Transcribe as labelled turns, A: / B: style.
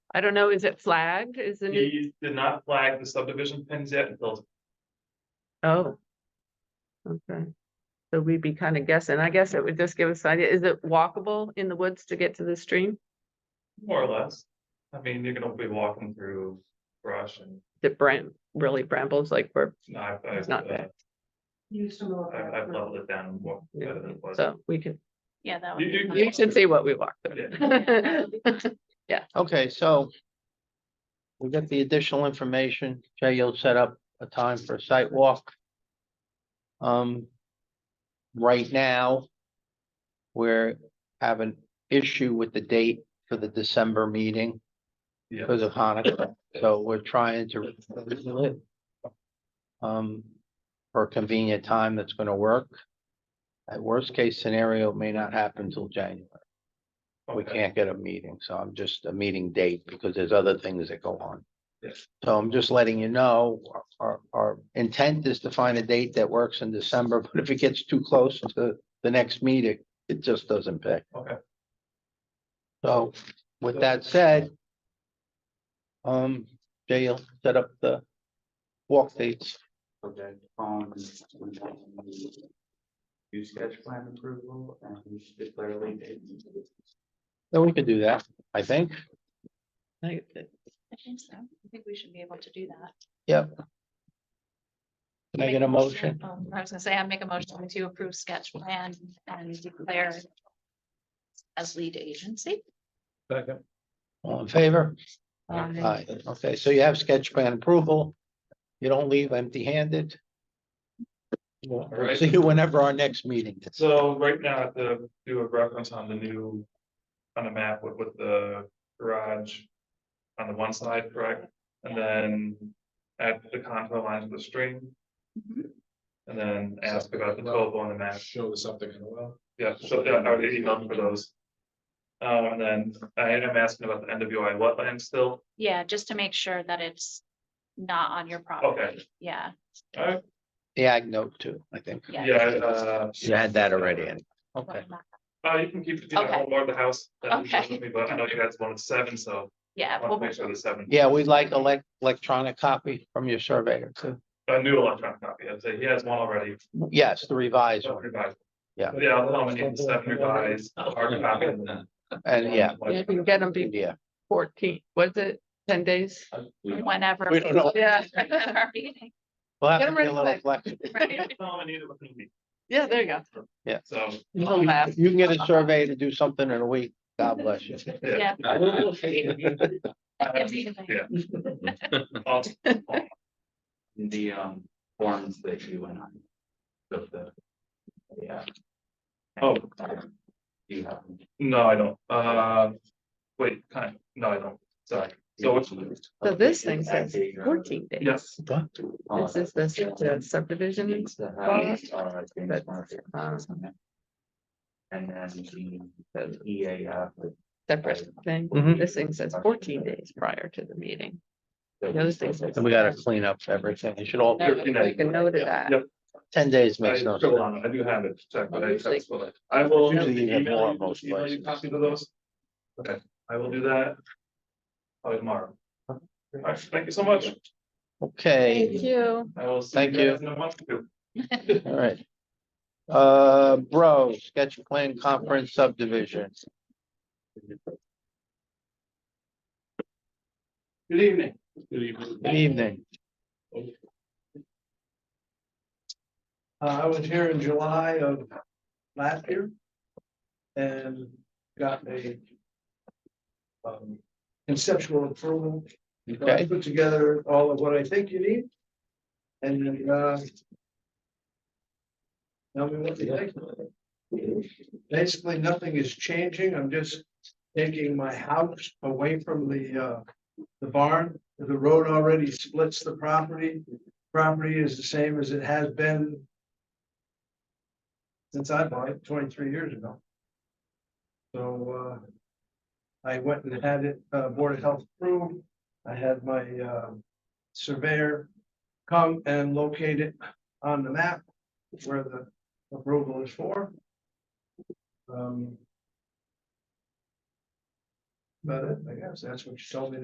A: I don't know, is it flagged? Is the new,
B: He did not flag the subdivision pins yet until,
A: oh. Okay. So we'd be kind of guessing. I guess it would just give us an idea. Is it walkable in the woods to get to the stream?
B: more or less. I mean, you're gonna be walking through brush and
A: The bram, really brambles like where,
B: no, I've, I've,
A: It's not
B: uh,
A: bad.
C: Use some of
B: I've, I've leveled it down more better than it was.
A: so we can,
C: Yeah, that
B: You- you-
C: would.
A: you should see what we walked. through.
C: Yeah.
D: Okay, so. We get the additional information. Jay, you'll set up a time for a site walk. Um. Right now. We're have an issue with the date for the December meeting
B: Yeah,
D: because of Hanukkah, so we're trying to. reschedule it, Um, for a convenient time that's gonna work. At worst case scenario, it may not happen till January we
B: okay.
D: can't get a meeting, so I'm just a meeting date because there's other things that go on.
B: Yes.
D: So I'm just letting you know, our- our, our intent is to find a date that works in December, but if it gets too close to the next meeting, it just doesn't pick.
B: Okay.
D: So with that said, um, Jay, you'll set up the walk dates.
E: Okay, um. Do sketch plan approval and declare late date.
D: Then we could do that, I think.
A: Like, the-
C: I think so. I think we should be able to do that.
D: Yep. Can I
C: Make
D: get a motion?
C: Um, I was gonna say, I make a motion to approve sketch plan and declare as lead agency.
D: All in favor?
C: Um,
D: Aye, okay, so you have sketch plan approval. You don't leave empty handed.
B: right.
D: See you whenever our next meeting is.
B: So right now, I have to do a reference on the new, on the map with, with the garage. On the one side, correct, and then add the contour lines of the stream,
C: mhm.
B: and then ask about the topo on the map.
F: Show us something in a well.
B: Yeah, so yeah, I already emailed for those. Um, and then I am asking about the NWI wetland still,
C: Yeah, just to make sure that it's not on your property. Yeah,
B: alright,
D: The ag note too, I think.
C: yeah.
B: yeah, uh.
D: You had that already in. Okay,
C: Wetland.
B: Uh, you can keep, you know,
C: Okay.
B: I'll board the house. that
C: Okay.
B: interests me, But I know you guys wanted seven, so I
C: Yeah,
B: want to
C: well,
B: make sure the seven,
D: yeah, we'd like elec- electronic copy from your surveyor too.
B: a new electronic copy, I'd say he has one already.
D: Yes, the revised
B: so
D: one,
B: revised.
D: Yeah.
B: But Yeah, I'll tell him I need the seven revised, a hard copy. and then-
D: and yeah,
A: You can get them before
D: yeah,
A: fourteen, was it ten days?
C: whenever.
D: We don't know.
A: Yeah.
C: Our meeting,
D: we'll have
A: Get
D: to
A: 'em
D: be a
A: ready
D: little
A: quick.
D: flexible.
C: right?
B: Tell him I need it within a week.
A: Yeah, there you go.
B: So,
A: Little laugh.
D: You can get a survey to do something in a week, God bless you.
B: yeah.
C: Yeah.
B: Yeah. I'll-
E: The um forms that you and I. Of the. Yeah.
B: Oh.
E: Do You have.
B: No, I don't, uh, wait, kind, of- no, I don't, sorry, so what's?
A: So this thing says fourteen days.
B: Yes.
A: This is the sub- the subdivision.
E: Needs to have,
A: bonus,
E: uh, James
A: but,
E: Murphy.
A: um,
E: And then the E EAF. with
A: Separate thing.
D: Mhm.
A: This thing says fourteen days prior to the meeting.
E: the-
A: The other thing says-
D: And we gotta clean up everything. It should all,
B: Yeah.
A: Make a note of that.
B: Yep,
D: ten days
B: I
D: makes no
B: still
D: sense.
B: on it, I do have it, check, but I,
A: Usually-
B: that's what I I will.
D: Usually you have
B: email
D: more
B: you-
D: most
B: email you
D: places.
B: Copies of those. Okay, I will do that. Probably tomorrow. Alright, thank you so much,
D: Okay.
A: you.
B: I will. see
D: Thank
B: guys In a month or two.
D: All right. Uh, bro, sketch plan conference subdivision.
F: Good evening. Good
D: Good
F: evening.
D: evening.
F: Uh, I was here in July of last year. And got a. um, Conceptual approval. So I
D: Okay.
F: Put together all of what I think you need. And then, uh. Tell me what you think. Basically, nothing is changing. I'm just taking my house away from the, uh, the barn. The road already splits the property. Property is the same as it has been. Since I bought it twenty-three years ago. So, uh. I went and had it, uh, Board of Health approved. I had my uh surveyor come and locate it on the map where the approval is for. Um. But I guess that's what you told me